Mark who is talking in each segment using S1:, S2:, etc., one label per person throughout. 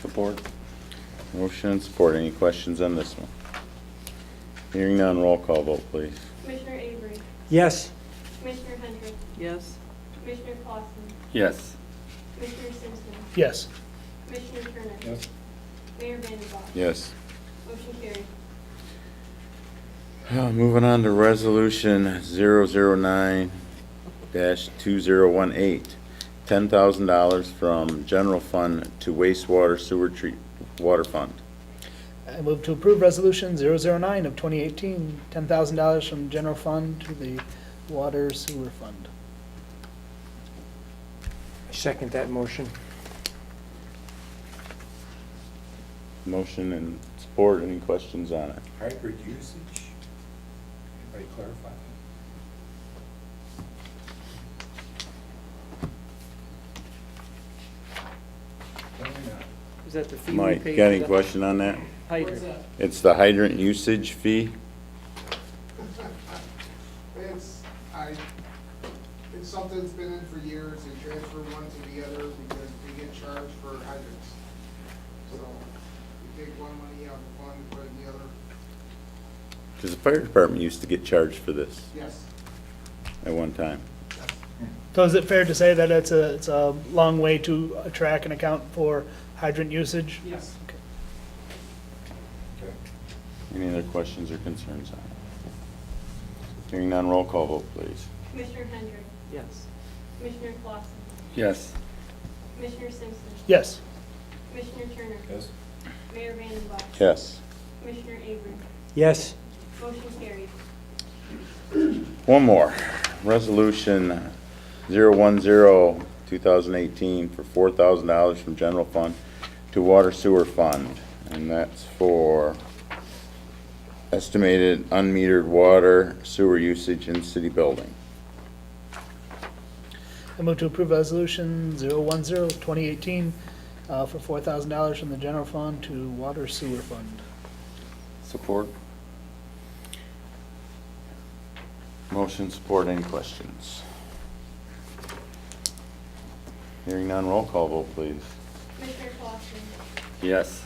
S1: Support. Motion and support. Any questions on this one? Hearing none, roll call vote, please.
S2: Commissioner Avery,
S3: Yes.
S2: Commissioner Hendrick,
S4: yes,
S2: Commissioner Clausen,
S5: Yes.
S2: Commissioner Simpson,
S6: yes,
S2: Commissioner Turner. Mayor Vandembosh.
S1: Yes.
S2: Motion carried.
S1: Uh, Moving on to Resolution 009-2018, $10,000 from general fund to wastewater sewer treat, water fund.
S6: I move to approve Resolution 009 of 2018, $10,000 from general fund to the water sewer fund.
S3: I Second that motion.
S1: Motion and support. Any questions on it?
S7: Hybrid usage? Anybody clarify? Definitely not.
S4: is that the fee we
S1: Mike,
S4: pay
S1: got
S4: for
S1: any
S4: the
S1: question on that?
S4: hydrant?
S1: It's the hydrant usage fee?
S8: It's, I, it's something that's been in for years, they transfer one to the other because we get charged for hydrants. So, we take one money out of one, put it in the other,
S1: Because the fire department used to get charged for this
S8: yes.
S1: at one time.
S6: So is it fair to say that it's a, it's a long way to track and account for hydrant usage?
S8: Yes.
S7: Okay.
S1: Any other questions or concerns on it? Hearing none, roll call vote, please.
S2: Commissioner Hendrick,
S4: Yes,
S2: Commissioner Clausen,
S5: Yes.
S2: Commissioner Simpson.
S6: Yes,
S2: Commissioner Turner.
S7: Yes?
S2: Mayor Vandembosh.
S1: Yes.
S2: Commissioner Avery.
S3: Yes.
S2: Motion carried.
S1: One more. Resolution 010-2018 for $4,000 from general fund to water sewer fund. And that's for estimated unmetered water sewer usage in city building.
S6: I move to approve Resolution 010 of 2018 uh, for $4,000 from the general fund to water sewer fund.
S5: Support?
S1: Motion support, any questions? Hearing none, roll call vote, please.
S2: Commissioner Clausen,
S5: Yes.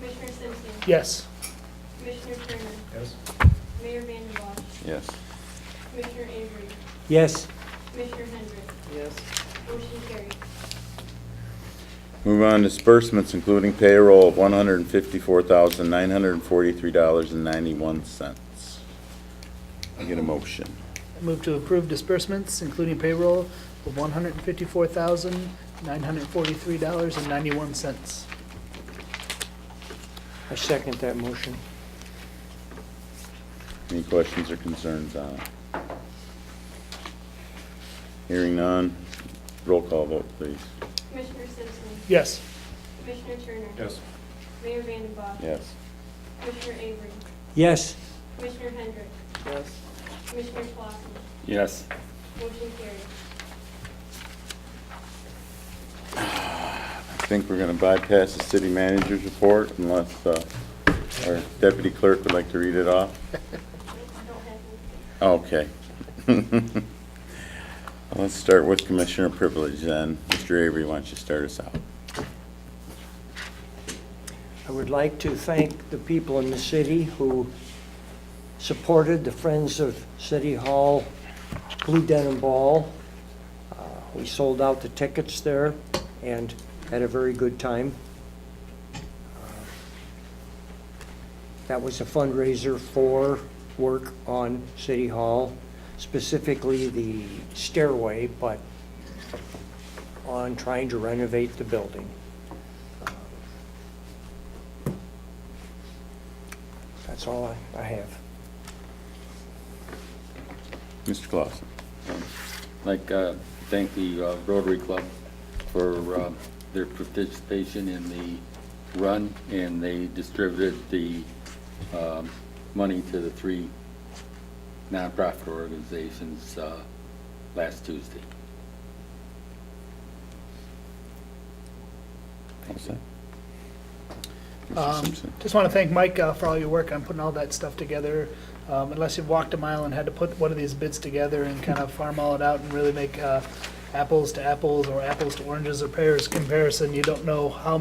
S2: Commissioner Simpson.
S6: Yes,
S2: Commissioner Turner.
S7: Yes?
S2: Mayor Vandembosh.
S1: Yes.
S2: Commissioner Avery.
S3: Yes.
S2: Commissioner Hendrick.
S4: yes,
S2: Motion carried.
S1: Move on disbursements, including payroll of one hundred and fifty-four thousand, nine hundred and forty-three dollars and ninety-one cents. I get a motion.
S6: I move to approve disbursements, including payroll of $154,943.91.
S3: I second that motion.
S1: Any questions or concerns on it? Hearing none, roll call vote, please.
S2: Commissioner Simpson.
S6: Yes.
S2: Commissioner Turner.
S7: Yes.
S2: Mayor Vandembosh.
S1: Yes.
S2: Commissioner Avery.
S3: Yes.
S2: Commissioner Hendrick.
S4: yes.
S2: Commissioner Clausen.
S5: Yes.
S2: Motion carried.
S1: I think we're gonna bypass the city manager's report unless, uh, our deputy clerk would like to read it off.
S2: I don't have anything.
S1: Okay. Let's start with Commissioner Privilege then. Mr. Avery, why don't you start us out?
S3: I would like to thank the people in the city who supported the Friends of City Hall Blue Denim Ball. Uh, We sold out the tickets there and had a very good time. Uh, That was a fundraiser for work on City Hall, specifically the stairway, but on trying to renovate the building. That's all I- I have.
S1: Mr. Clausen.
S5: Like, uh, thank the uh, Rotary Club for uh, their participation in the run, and they distributed the um, money to the three nonprofit organizations uh, last Tuesday.
S1: What's that? Mr.
S6: Um,
S1: Simpson.
S6: Just want to thank Mike uh, for all your work on putting all that stuff together. Um, Unless you've walked a mile and had to put one of these bids together and kind of farm all it out and really make uh, apples to apples or apples to oranges or pears comparison, you don't know how